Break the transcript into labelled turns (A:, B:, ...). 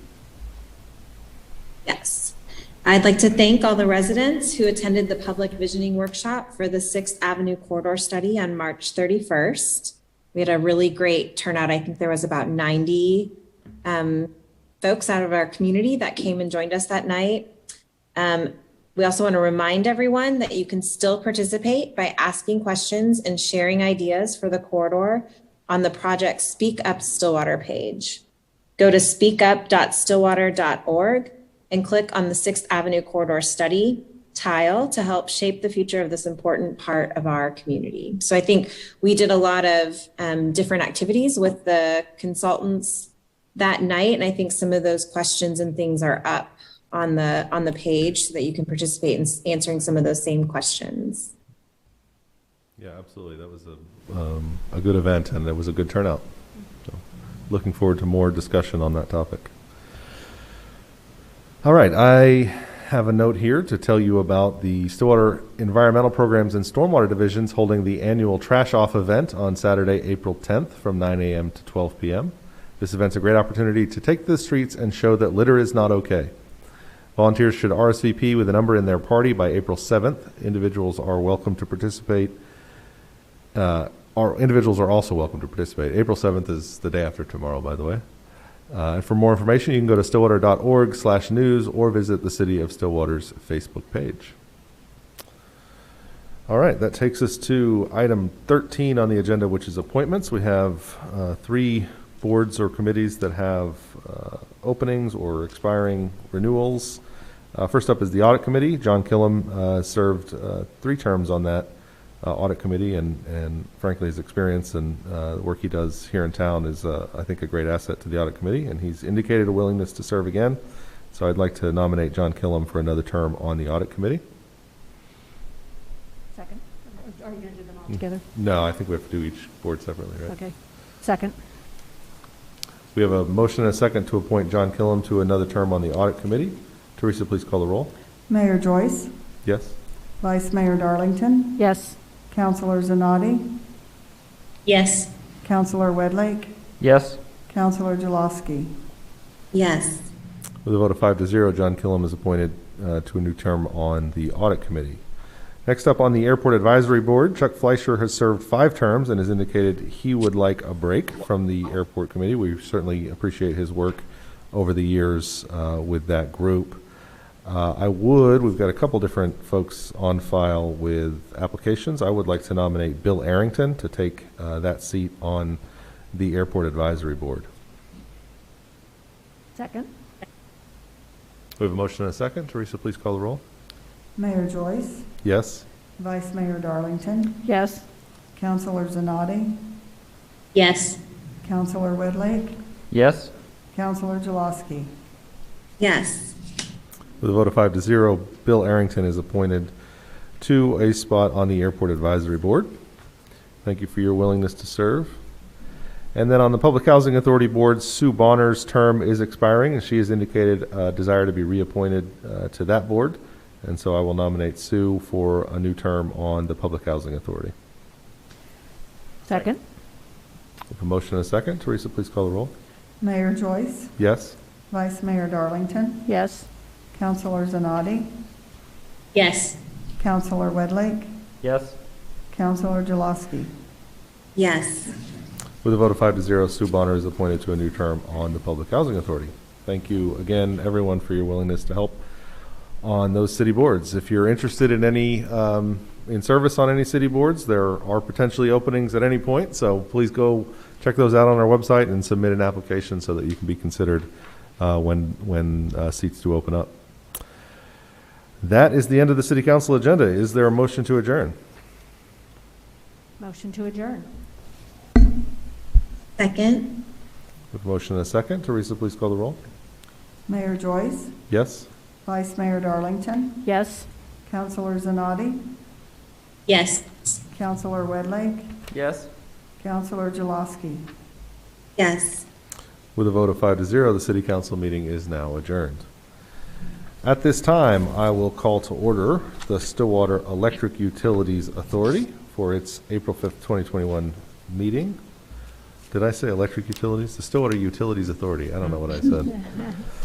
A: I'd like to thank all the residents who attended the public visioning workshop for the Sixth Avenue corridor study on March 31st. We had a really great turnout. I think there was about 90 um, folks out of our community that came and joined us that night. Um, we also want to remind everyone that you can still participate by asking questions and sharing ideas for the corridor on the project Speak Up Stillwater page. Go to speakup.stillwater.org and click on the Sixth Avenue Corridor Study tile to help shape the future of this important part of our community. So I think we did a lot of um, different activities with the consultants that night, and I think some of those questions and things are up on the on the page so that you can participate in s- answering some of those same questions.
B: Yeah, absolutely. That was a, um, a good event and it was a good turnout. So, Looking forward to more discussion on that topic. All right, I have a note here to tell you about the Stillwater Environmental Programs and Stormwater Divisions holding the annual Trash Off event on Saturday, April 10th from 9 a.m. to 12 p.m. This event's a great opportunity to take to the streets and show that litter is not okay. Volunteers should RSVP with a number in their party by April 7th. Individuals are welcome to participate uh, our individuals are also welcome to participate. April 7th is the day after tomorrow, by the way. Uh, and for more information, you can go to stillwater.org slash news or visit the City of Stillwater's Facebook page. All right, that takes us to item 13 on the agenda, which is appointments. We have uh, three boards or committees that have uh, openings or expiring renewals. Uh, First up is the Audit Committee. John Killam uh, served uh, three terms on that uh, Audit Committee, and and frankly, his experience and uh, the work he does here in town is, uh, I think, a great asset to the Audit Committee, and he's indicated a willingness to serve again. So I'd like to nominate John Killam for another term on the Audit Committee.
C: Second. Or Are you going to do them all together?
B: No, I think we have to do each board separately, right?
C: Okay. Second.
B: We have a motion and a second to appoint John Killam to another term on the Audit Committee. Teresa, please call the roll.
D: Mayor Joyce,
B: Yes?
D: Vice Mayor Darlington,
C: Yes.
D: Councilor Zanotti,
A: Yes.
D: Councilor Wedlake,
E: Yes.
D: Councilor Jaloski.
A: Yes.
B: With a vote of five to zero, John Killam is appointed uh, to a new term on the Audit Committee. Next up on the Airport Advisory Board, Chuck Fleischer has served five terms and has indicated he would like a break from the Airport Committee. We certainly appreciate his work over the years uh, with that group. Uh, I would, we've got a couple different folks on file with applications. I would like to nominate Bill Arrington to take uh, that seat on the Airport Advisory Board.
C: Second.
B: We have a motion and a second. Teresa, please call the roll.
D: Mayor Joyce,
B: Yes?
D: Vice Mayor Darlington,
C: Yes.
D: Councilor Zanotti,
A: Yes.
D: Councilor Wedlake,
E: Yes.
D: Councilor Jaloski.
A: Yes.
B: With a vote of five to zero, Bill Arrington is appointed to a spot on the Airport Advisory Board. Thank you for your willingness to serve. And then on the Public Housing Authority Board, Sue Bonner's term is expiring, and she has indicated a desire to be reappointed uh, to that board. And so I will nominate Sue for a new term on the Public Housing Authority.
C: Second.
B: With a motion and a second, Teresa, please call the roll.
D: Mayor Joyce,
B: Yes?
D: Vice Mayor Darlington,
C: Yes.
D: Councilor Zanotti,
A: Yes.
D: Councilor Wedlake,
E: Yes.
D: Councilor Jaloski.
A: Yes.
B: With a vote of five to zero, Sue Bonner is appointed to a new term on the Public Housing Authority. Thank you again, everyone, for your willingness to help on those city boards. If you're interested in any, um, in service on any city boards, there are potentially openings at any point, so please go check those out on our website and submit an application so that you can be considered uh, when, when uh, seats do open up. That is the end of the city council agenda. Is there a motion to adjourn?
C: Motion to adjourn.
A: Second?
B: With motion and a second, Teresa, please call the roll.
D: Mayor Joyce,
B: Yes?
D: Vice Mayor Darlington,
C: Yes.
D: Councilor Zanotti,
A: Yes.
D: Councilor Wedlake,
E: Yes.
D: Councilor Jaloski.
A: Yes.
B: With a vote of five to zero, the city council meeting is now adjourned. At this time, I will call to order the Stillwater Electric Utilities Authority for its April 5th, 2021 meeting. Did I say electric utilities? The Stillwater Utilities Authority, I don't know what I said.